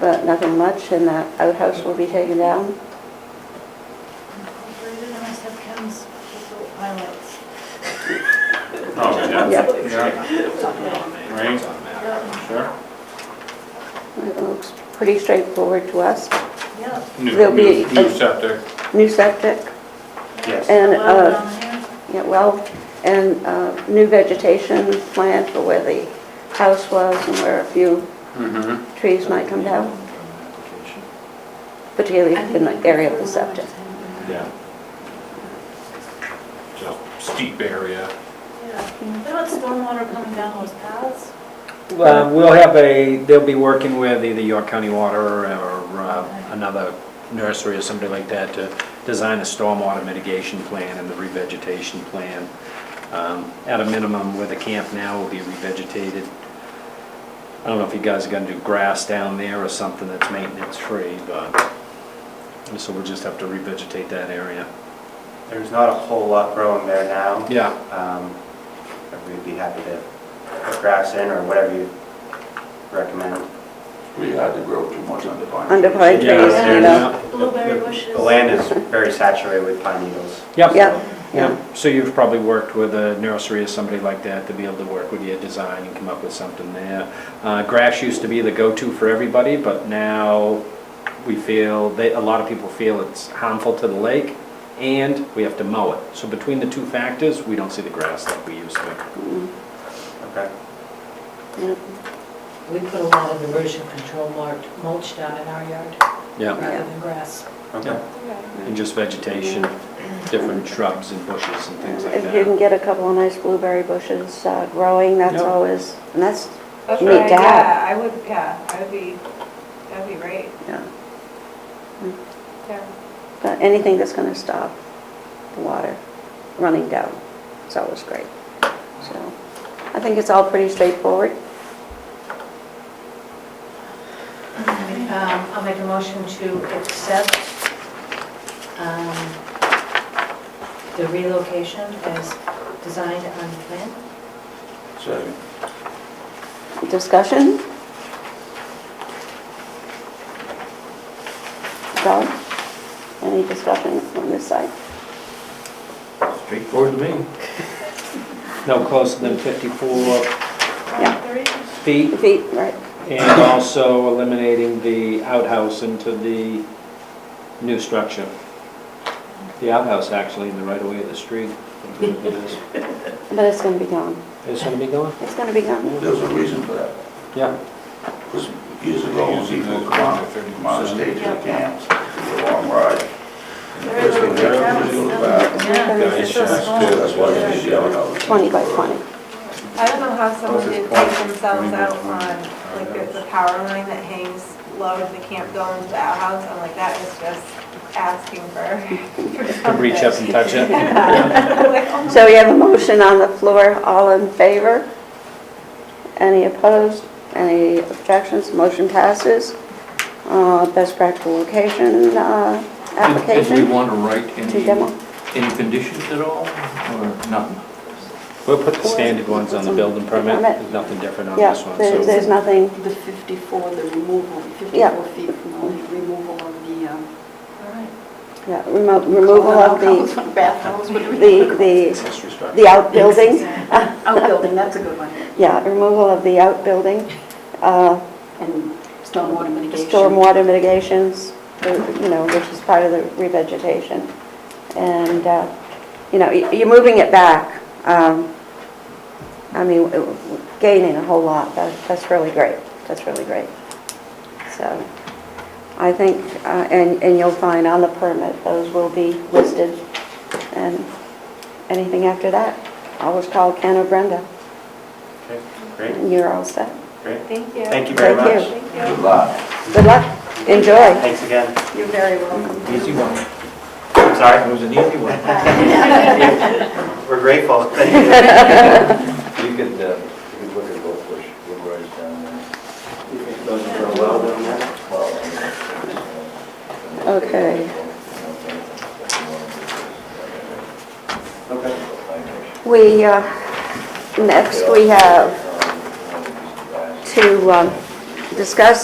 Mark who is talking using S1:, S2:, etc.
S1: but nothing much, and that outhouse will be taken down.
S2: Incorporated, and I said Ken's little highlights.
S3: Oh, yeah,
S1: Yep,
S3: yeah, right, sure.
S1: it looks pretty straightforward to us.
S2: Yeah.
S3: New,
S1: There'll be
S3: new, new
S1: a-
S3: septic,
S1: New septic,
S3: Yes.
S1: And,
S2: Well,
S1: uh,
S2: down here.
S1: Yeah, well, and uh, new vegetation plan for where the house was and where a few
S3: mm-hmm,
S1: trees might come down, particularly
S2: I think
S1: in the area of the
S2: it's
S1: septic.
S3: yeah. So steep area.
S2: Yeah. They let stormwater coming down those paths.
S4: Um, We'll have a, they'll be working with either York County Water or uh, another nursery or somebody like that to design a stormwater mitigation plan and the revegetation plan. Um, At a minimum, where the camp now will be revegetated. I don't know if you guys are gonna do grass down there or something that's maintenance-free, but, so we'll just have to revegetate that area.
S5: There's not a whole lot growing there now.
S4: Yeah,
S5: Um, but We'd be happy to put grass in or whatever you recommend.
S6: We had to grow too much under pine.
S1: Under
S6: trees.
S1: pine trees,
S4: Yeah,
S1: you know.
S2: Blueberry
S5: The-
S2: bushes.
S5: The land is very saturated with pine needles.
S4: yep.
S1: Yeah, yeah.
S4: Yeah, so you've probably worked with a nursery or somebody like that to be able to work with your design and come up with something there. Uh, Grass used to be the go-to for everybody, but now we feel, they, a lot of people feel it's harmful to the lake and we have to mow it. So between the two factors, we don't see the grass like we used to.
S5: Okay.
S1: yeah.
S7: We put a lot of erosion control marked mulch down in our yard
S4: Yeah,
S7: rather than grass.
S5: Okay.
S4: and just vegetation, different shrubs and bushes and things like
S1: If you can
S4: that.
S1: get a couple of nice blueberry bushes uh, growing, that's
S4: Yeah.
S1: always, and that's,
S8: That's
S1: You
S8: what
S1: need
S8: I-
S1: to have-
S8: Yeah, I would, yeah, I would be, that'd be great.
S1: yeah. Mm.
S8: Yeah.
S1: But anything that's going to stop the water running down is always great. So I think it's all pretty straightforward.
S7: Um, I'll make a motion to accept um, the relocation as designed on the plan.
S6: Second.
S1: Discussion? Don, any discussion on this side?
S6: Straightforward to me.
S4: No closer than 54
S1: Yeah.
S2: Blueberries.
S4: feet
S1: Feet, right,
S4: And also eliminating the outhouse into the new structure. The outhouse actually in the right of way of the street. It's
S1: but it's going to be gone.
S4: gonna be going?
S1: It's going to be gone.
S6: There's a reason for that,
S4: Yeah.
S6: because years ago, people come out, come out of state to the camps, it's a long ride.
S2: Very
S6: First
S2: little
S6: thing they have to do is back.
S2: Yeah.
S1: Yeah,
S2: It's so
S4: it's-
S2: small.
S6: That's why you see the outhouse.
S1: 20 by 20.
S8: I don't know how someone
S3: Closest
S8: could
S3: point.
S8: take themselves
S3: Maybe
S8: out
S3: it's one.
S8: on, like, there's a power line that hangs low to the camp going to the outhouse, I'm like, that is just asking for. for
S4: Can reach up
S8: something.
S4: and touch it.
S8: Yeah. Like, oh my
S1: So we have a motion on the floor, all in favor? Any opposed? Any objections? Motion passes. Uh, Best practical location uh,
S9: Did we
S1: application
S9: want to write
S1: to
S9: any,
S1: demo.
S9: any conditions at all, or nothing?
S4: We'll put the standard ones on the building permit. There's nothing different on
S1: Yeah,
S4: this one,
S1: there-
S4: so.
S1: there's nothing,
S10: The 54, the removal,
S1: Yeah.
S10: 54 feet from the removal of the... um,
S2: All right.
S1: yeah, remo- removal of the,
S10: outhouse, Bathhouse, whatever. you-
S1: the, the
S4: Accessory structure.
S1: the outbuilding.
S10: Outbuilding, Oh, that's a good one.
S1: Yeah, removal of the outbuilding, uh,
S10: And stormwater mitigation.
S1: stormwater mitigations, uh, you know, which is part of the revegetation. And, uh, you know, y- you're moving it back. um, I mean, w- w- gaining a whole lot. That- That's really great. That's really great. So I think, uh, and and you'll find on the permit, those will be listed. And anything after that, always call Ken or Brenda.
S5: Okay, great,
S1: and You're all set.
S5: great.
S8: Thank you.
S5: Thank you very
S1: Thank you.
S5: much.
S8: Thank you.
S6: Good luck.
S1: Good luck. Enjoy.
S5: Thanks again.
S10: You're very welcome.
S9: Easy one.
S5: I'm
S9: That
S5: sorry.
S9: was an easy one.
S5: We're grateful. Thank you.
S11: You could, uh, you could look at both bush, Woodrise down there.
S5: Those are well done, yeah.
S11: Well, I mean, it's, uh,
S1: Okay.
S5: Okay.
S1: We, uh, next we have to um, discuss